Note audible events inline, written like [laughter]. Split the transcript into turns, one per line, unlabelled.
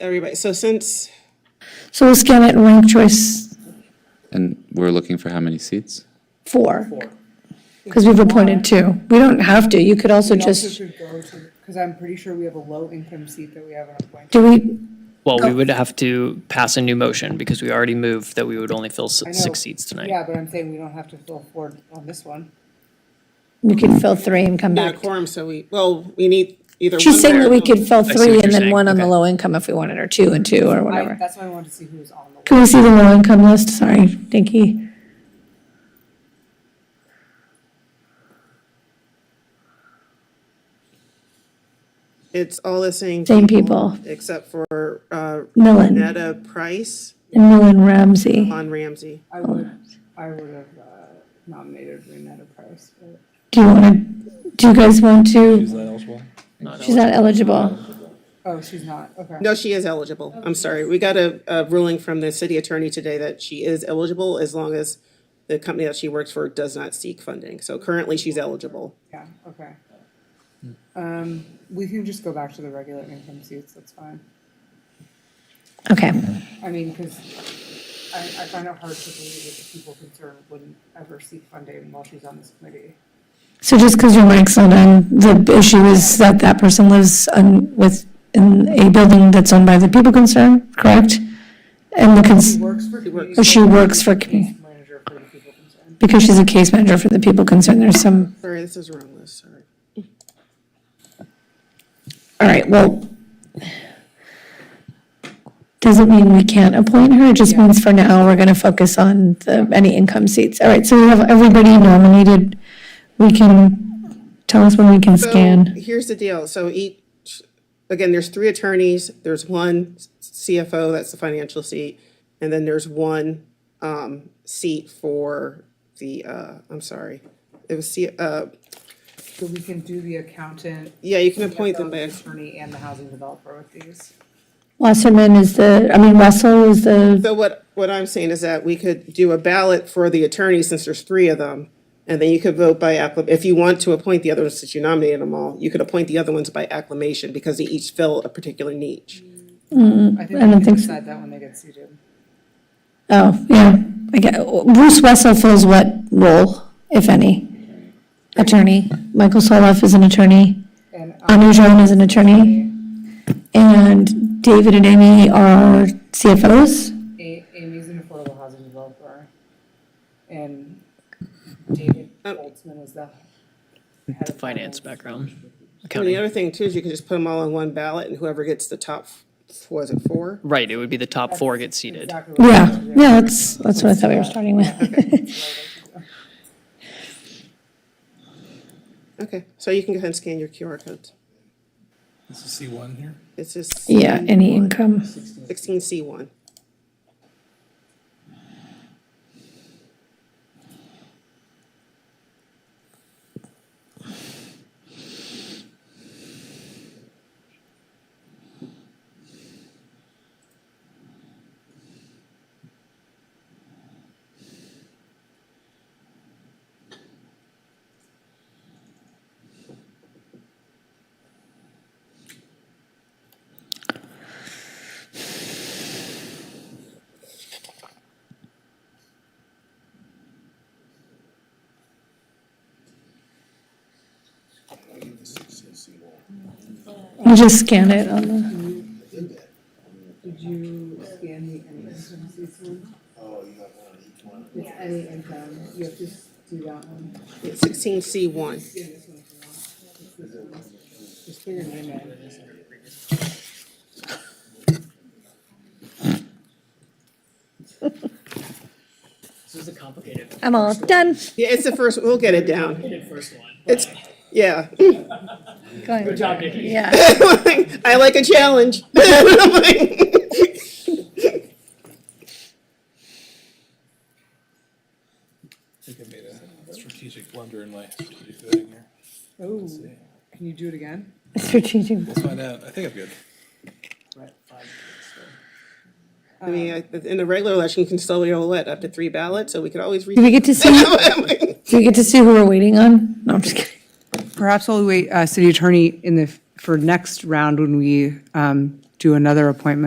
everybody, so since,
So we'll scan it and rank choice
And we're looking for how many seats?
four. Because we've appointed two. We don't have to. You could also
We also
just,
should go to, because I'm pretty sure we have a low income seat that we haven't appointed.
do we,
Well,
Oh.
we would have to pass a new motion because we already moved that we would only fill s-
I know-
six seats tonight.
Yeah, but I'm saying we don't have to fill four on this one.
we could fill three and come
not
back.
a quorum, so we, well, we need either one.
She's saying that we could fill
see
three
what
and
you're
then
saying.
one on the
Okay.
low income if we wanted, or two and two, or
I,
whatever.
that's why I wanted to see who was on the list.
Can we see the low income list? Sorry, Dinky.
It's all the same.
Same people.
Except for, uh,
Millen,
Netta Price
and Millen Ramsey.
on Ramsey.
I would, I would have uh, nominated Renetta Price, but
Do you want to, do you guys want to,
that eligible?
she's not eligible.
Oh, she's not, okay.
No, she is eligible. I'm sorry. We got a, a ruling from the city attorney today that she is eligible as long as the company that she works for does not seek funding. So currently she's eligible.
Yeah, okay. Um, we can just go back to the regular income seats, that's fine.
Okay,
I mean, because I, I find it hard to believe that the people concerned wouldn't ever seek funding while she's on this committee.
so just because your mic's not on, the issue is that that person lives on, with, in a building that's owned by the people concerned, correct? And the
She
cons,
works for
or
community.
she works for, commu-
Manager for the people concerned.
because she's a case manager for the people concerned, there's some,
Sorry, this is the wrong list, sorry.
all right, well. Doesn't mean we can't appoint her, it just means for now, we're gonna focus on the, any income seats. All right, so we have everybody nominated, we can, tell us when we can
So
scan.
Here's the deal. So each, again, there's three attorneys, there's one CFO, that's the financial seat, and then there's one um seat for the uh, I'm sorry. It was C, uh,
So we can do the accountant.
yeah, you can appoint them
the
back.
Attorney and the housing developer with these.
Wasserman is the, I mean, Russell is the,
So what, what I'm saying is that we could do a ballot for the attorney, since there's three of them. And then you could vote by acclam, if you want to appoint the other ones, since you nominated them all, you could appoint the other ones by acclamation because they each fill a particular niche.
I think
Mm, I don't
we can
think so.
decide that when they get seated.
oh, yeah, I get, Bruce Russell fills what role, if any? Attorney, Michael Soloff is an attorney,
And um,
Anu Joan is an attorney, and David and Amy are CFOs.
A- Amy's an affordable housing developer. And David Holtzman is the. head of
Finance background,
And the
accounting.
other thing too is you could just put them all on one ballot and whoever gets the top, f- was it four?
Right, it would be the top four get seated.
Exactly what
Yeah, yeah, that's, that's what I thought we were starting with. [laughs]
Okay, so you can go ahead and scan your QR codes.
This is C one here.
This is
Yeah, any income.
sixteen C one.
You just scan it on the,
Did you scan the income seats one? It's any income, you have to s- do that one.
Sixteen C one.
Scan this one if you want. It's this one. Just put your name in.
This is a complicated
I'm all done.
Yeah, it's the first, we'll get it down.
first one.
It's, yeah. [laughs]
Good
job, Nikki.
Yeah. [laughs]
I like a challenge. [laughs]
I think I made a strategic blunder in my [laughs] strategic voting here.
Oh, can you do it again?
Strategic.
Let's find out. I think I'm good.
I mean, I- in the regular election, you can still roulette up to three ballots, so we could always. [laughs]
Do we get to see, do we get to see who we're waiting on? No, I'm just kidding.
Perhaps we'll wait, uh, city attorney in the, for next round when we, um, do another appointment